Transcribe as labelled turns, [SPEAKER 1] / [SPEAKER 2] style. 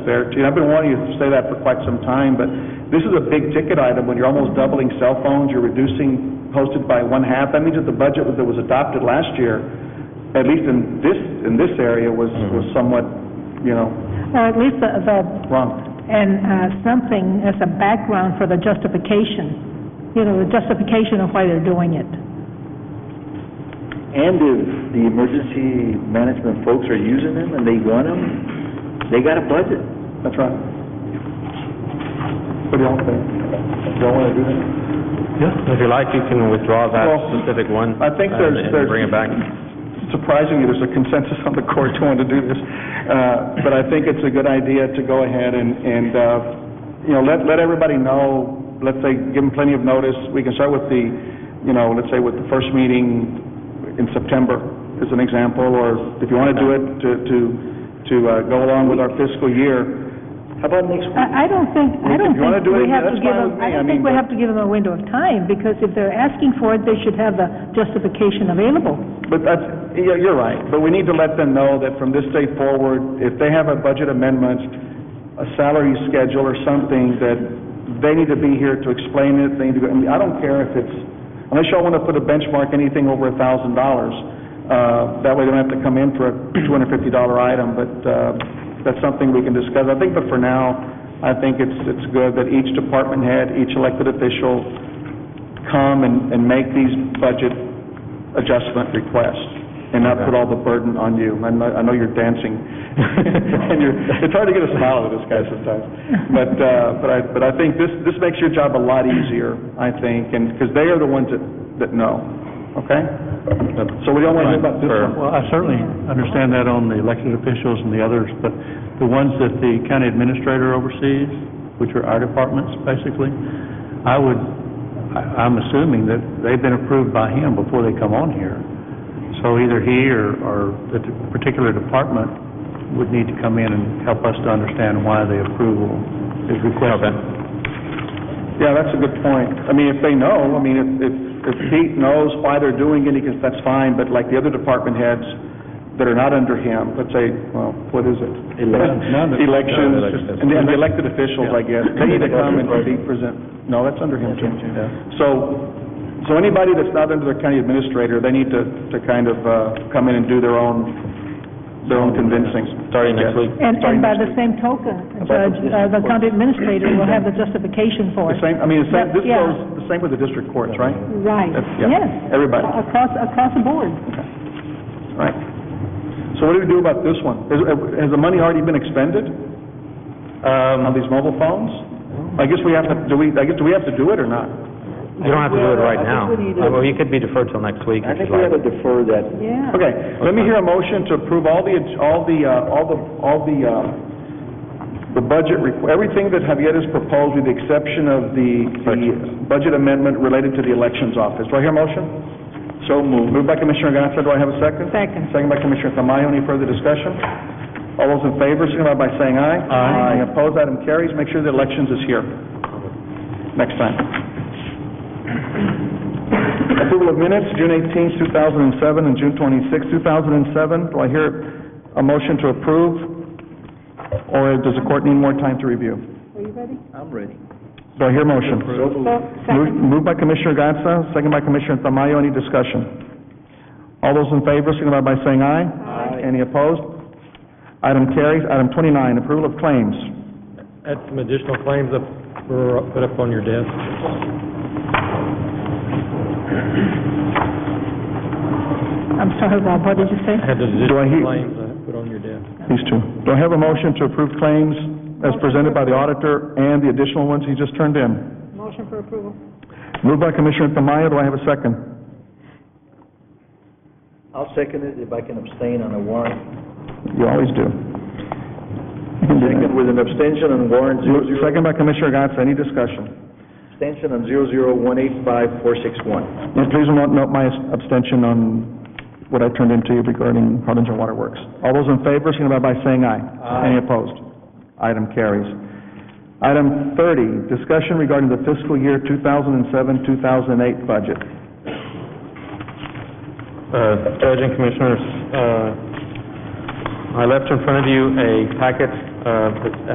[SPEAKER 1] there too. I've been wanting you to say that for quite some time, but this is a big ticket item. When you're almost doubling cell phones, you're reducing postage by one half. That means that the budget that was adopted last year, at least in this, in this area, was, was somewhat, you know,
[SPEAKER 2] Or at least the, the,
[SPEAKER 1] wrong.
[SPEAKER 2] and, uh, something as a background for the justification, you know, the justification of why they're doing it.
[SPEAKER 3] And if the emergency management folks are using them and they want them, they got a budget.
[SPEAKER 1] That's right. What do y'all think? Y'all want to do that?
[SPEAKER 4] If you like, you can withdraw that
[SPEAKER 1] Well,
[SPEAKER 4] specific one.
[SPEAKER 1] I think
[SPEAKER 4] uh,
[SPEAKER 1] there's-
[SPEAKER 4] and
[SPEAKER 1] there's-
[SPEAKER 4] bring it back.
[SPEAKER 1] surprisingly, there's a consensus on the court to want to do this, Uh, but I think it's a good idea to go ahead and, and, uh, you know, let, let everybody know, let's say, give them plenty of notice, we can start with the, you know, let's say with the first meeting in September, as an example, or if you want to do it to, to, to uh, go along with our fiscal year. How about next week?
[SPEAKER 2] I, I don't think, I
[SPEAKER 1] If
[SPEAKER 2] don't
[SPEAKER 1] you wanna
[SPEAKER 2] think
[SPEAKER 1] do it,
[SPEAKER 2] we have to
[SPEAKER 1] that's
[SPEAKER 2] give
[SPEAKER 1] fine with
[SPEAKER 2] them,
[SPEAKER 1] me.
[SPEAKER 2] I
[SPEAKER 1] I
[SPEAKER 2] don't
[SPEAKER 1] mean,
[SPEAKER 2] think we
[SPEAKER 1] but-
[SPEAKER 2] have to give them a window of time, because if they're asking for it, they should have the justification available.
[SPEAKER 1] But that's, yeah, you're right, but we need to let them know that from this day forward, if they have a budget amendment, a salary schedule or something, that they need to be here to explain it, they need to, go- I mean, I don't care if it's, unless y'all want to put a benchmark, anything over a thousand dollars, uh, that way they don't have to come in for a two hundred fifty dollar item, but, uh, that's something we can discuss. I think, but for now, I think it's, it's good that each department head, each elected official come and, and make these budget adjustment request and not put all the burden on you. I know, I know you're dancing, and you're, it's hard to get a smile out of this guy sometimes. But, uh, but I, but I think this, this makes your job a lot easier, I think, and, because they are the ones that, that know, okay? So we don't want to hear about this one.
[SPEAKER 5] Well, I certainly understand that on the elected officials and the others, but the ones that the county administrator oversees, which are our departments, basically, I would, I- I'm assuming that they've been approved by him before they come on here. So either he or, or the t- particular department would need to come in and help us to understand why the approval is requested.
[SPEAKER 1] Yeah, that's a good point. I mean, if they know, I mean, if, if, if Pete knows why they're doing it, he can, that's fine, but like the other department heads that are not under him, let's say, well, what is it?
[SPEAKER 5] None of-
[SPEAKER 1] Elections, and the and the elected officials, I guess, they need to come and be present, no, that's under him, too. So, so anybody that's not under their county administrator, they need to, to kind of, uh, come in and do their own, their own convincing.
[SPEAKER 4] Starting next week.
[SPEAKER 2] And,
[SPEAKER 1] Starting
[SPEAKER 2] and by
[SPEAKER 1] next
[SPEAKER 2] the same token, Judge, uh, the county administrator will have the justification for
[SPEAKER 1] The
[SPEAKER 2] it.
[SPEAKER 1] same, I mean, the same, this
[SPEAKER 2] Yeah.
[SPEAKER 1] goes, the same with the district courts, right?
[SPEAKER 2] Right,
[SPEAKER 1] Yeah.
[SPEAKER 2] yes.
[SPEAKER 1] Everybody.
[SPEAKER 2] Across, across the board.
[SPEAKER 1] Right. So what do we do about this one? Has, has the money already been expended
[SPEAKER 4] Um,
[SPEAKER 1] on these mobile phones? I guess we have to, do we, I guess, do we have to do it or not?
[SPEAKER 4] you don't have to do it right now.
[SPEAKER 3] I think we need to-
[SPEAKER 4] Uh, Well, you could be deferred till next week
[SPEAKER 3] I
[SPEAKER 4] if
[SPEAKER 3] think
[SPEAKER 4] you'd
[SPEAKER 3] we ought
[SPEAKER 4] like.
[SPEAKER 3] to defer that.
[SPEAKER 2] Yeah.
[SPEAKER 1] Okay, let me hear a motion to approve all the, all the, uh, all the, all the, uh, the budget, requ- everything that Javier has proposed with the exception of the, the budget amendment related to the elections office. Do I hear a motion? So moved. Moved by Commissioner Gatsa, do I have a second?
[SPEAKER 2] Second.
[SPEAKER 1] Second by Commissioner Tamayo, any further discussion? All those in favor, signify by saying aye. Aye. Opposed, item carries, make sure the elections is here next time. Approval of minutes, June 18, 2007, and June 26, 2007. Do I hear a motion to approve, or does the court need more time to review?
[SPEAKER 2] Are you ready?
[SPEAKER 3] I'm ready.
[SPEAKER 1] Do I hear a motion?
[SPEAKER 2] So,
[SPEAKER 1] Moved-
[SPEAKER 2] second.
[SPEAKER 1] Moved by Commissioner Gatsa, second by Commissioner Tamayo. Any discussion? All those in favor, signify by saying aye. Aye. Any opposed? Item carries. Item 29, approval of claims.
[SPEAKER 6] Add some additional claims up, or put up on your desk.
[SPEAKER 2] I'm sorry, Rob, what did you say?
[SPEAKER 6] Had the
[SPEAKER 1] Do I hear-
[SPEAKER 6] additional claims I put on your desk.
[SPEAKER 1] These two. Do I have a motion to approve claims as presented by the auditor and the additional ones he just turned in?
[SPEAKER 2] Motion for approval.
[SPEAKER 1] Moved by Commissioner Tamayo, do I have a second?
[SPEAKER 3] I'll second it if I can abstain on a warrant.
[SPEAKER 1] You always do. You can do that.
[SPEAKER 3] Second with an abstention on warrant zero
[SPEAKER 1] Moved-
[SPEAKER 3] zero,
[SPEAKER 1] Second by Commissioner Gatz, any discussion?
[SPEAKER 3] abstention on zero zero one eight five four six one.
[SPEAKER 1] And please note note my abstention on what I turned in to you regarding Harbinger Water Works. All those in favor, signify by saying aye. Any opposed? Item carries. Item 30, discussion regarding the fiscal year 2007-2008 budget.
[SPEAKER 4] Uh, Judge and Commissioners, uh, I left in front of you a packet, uh, that